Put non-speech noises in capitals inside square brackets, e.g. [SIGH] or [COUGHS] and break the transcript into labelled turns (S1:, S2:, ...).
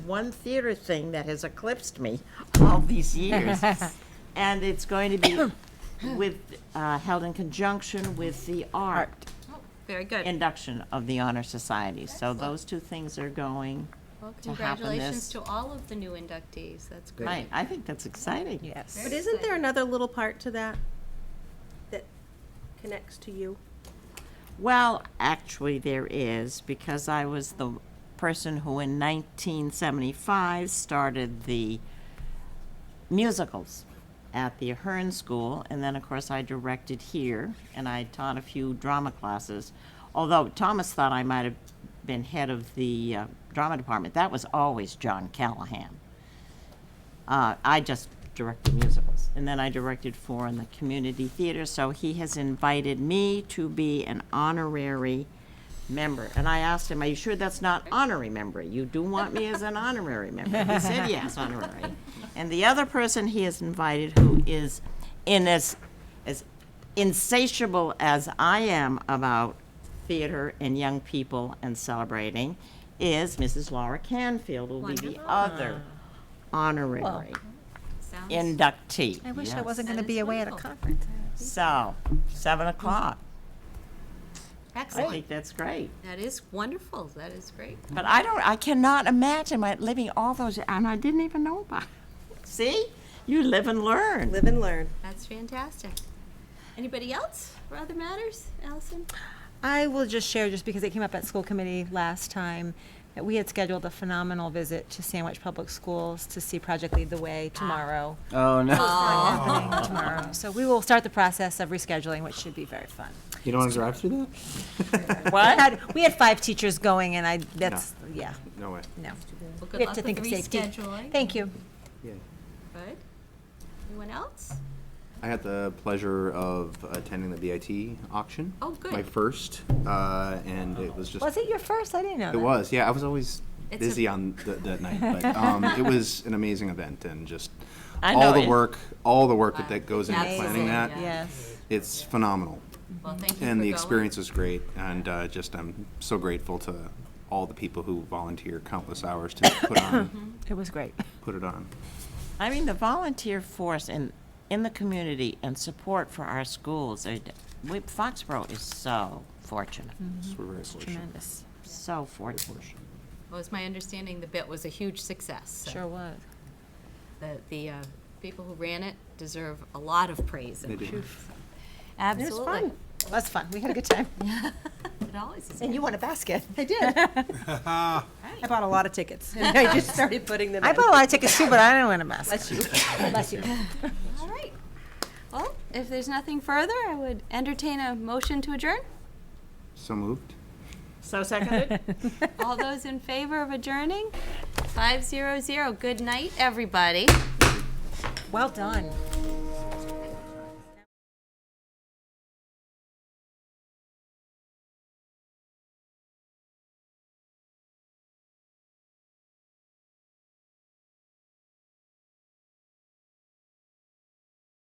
S1: one theater thing that has eclipsed me all these years. And it's going to be with, uh, held in conjunction with the art
S2: Very good.
S1: induction of the Honor Society. So those two things are going.
S2: Well,
S1: to happen
S2: congratulations
S1: this-
S2: to all of the new inductees. That's great.
S1: Right, I think that's exciting.
S3: Yes.
S4: But isn't there another little part to that that connects to you?
S1: Well, actually, there is, because I was the person who in 1975 started the musicals at the Ahern School, and then, of course, I directed here, and I taught a few drama classes. Although Thomas thought I might have been head of the uh, drama department, that was always John Callahan. Uh, I just directed musicals. And then I directed four in the community theater. So he has invited me to be an honorary member. And I asked him, Are you sure that's not honorary member? You do want me as an honorary member? He said, Yes, honorary. And the other person he has invited, who is in as, as insatiable as I am about theater and young people and celebrating, is Mrs. Laura Canfield, who will be the
S2: Wonderful.
S1: other honorary
S2: Sounds-
S1: inductee.
S3: I wish I
S1: Yes.
S3: wasn't
S2: That
S3: going to
S2: is
S3: be away at a
S2: wonderful.
S3: conference.
S1: So, seven o'clock. I
S2: Excellent.
S1: think that's great.
S2: That is wonderful. That is great.
S1: But I don't, I cannot imagine my living all those, and I didn't even know about it. See? You live and learn.
S4: Live and learn.
S2: That's fantastic. Anybody else for other matters? Allison?
S3: I will just share, just because it came up at school committee last time, that we had scheduled a phenomenal visit to Sandwich Public Schools to see Project Lead the Way tomorrow.
S5: Oh, no.
S3: Happening Tomorrow. So we will start the process of rescheduling, which should be very fun.
S5: You don't want to drive through that?
S2: [LAUGHS]
S3: We had, we had five teachers going and I, that's, yeah,
S5: No way.
S3: no.
S2: Well,
S3: We
S2: good
S3: have
S2: luck
S3: to
S2: with
S3: think of safety.
S2: rescheduling.
S3: Thank you.
S2: Good. Anyone else?
S6: I had the pleasure of attending the BIT auction.
S2: Oh, good.
S6: My first, uh, and it was just.
S3: Was it your first? I didn't know
S6: It
S3: that.
S6: was, yeah. I was always
S2: It's a-
S6: busy on th- that night, but um, it was an amazing event
S2: [LAUGHS]
S6: and just
S1: I know
S6: all the
S1: it-
S6: work, all the work that, that goes into
S2: Amazing,
S6: planning that.
S2: yeah.
S3: Yes.
S6: It's phenomenal,
S2: Well, thank you for
S6: and the
S2: going.
S6: experience was great. And uh, just I'm so grateful to all the people who volunteer countless hours to
S2: [COUGHS]
S6: put
S2: Mm-hmm.
S6: on,
S3: It was great.
S6: put it on.
S1: I mean, the volunteer force in, in the community and support for our schools, are d- we- Foxborough is so fortunate,
S6: So we're very fortunate.
S3: Tremendous.
S1: so fortunate.
S2: Well, it's my understanding the bit was a huge success. so
S3: Sure was.
S2: The, the uh, people who ran it deserve a lot of praise. and
S6: They do.
S2: proof. Absolutely.
S3: fun. It was fun. We had a good time.
S2: It always is.
S3: And you won a basket. I did.
S4: I bought a lot of tickets. and I just started putting them in.
S3: I bought a lot of tickets too, but I didn't win a basket. Bless you. Bless you.
S2: All right. Well, if there's nothing further, I would entertain a motion to adjourn.
S6: So moved.
S1: So seconded?
S2: All those in favor of adjourning? Five zero zero. Good night, everybody.
S3: Well done.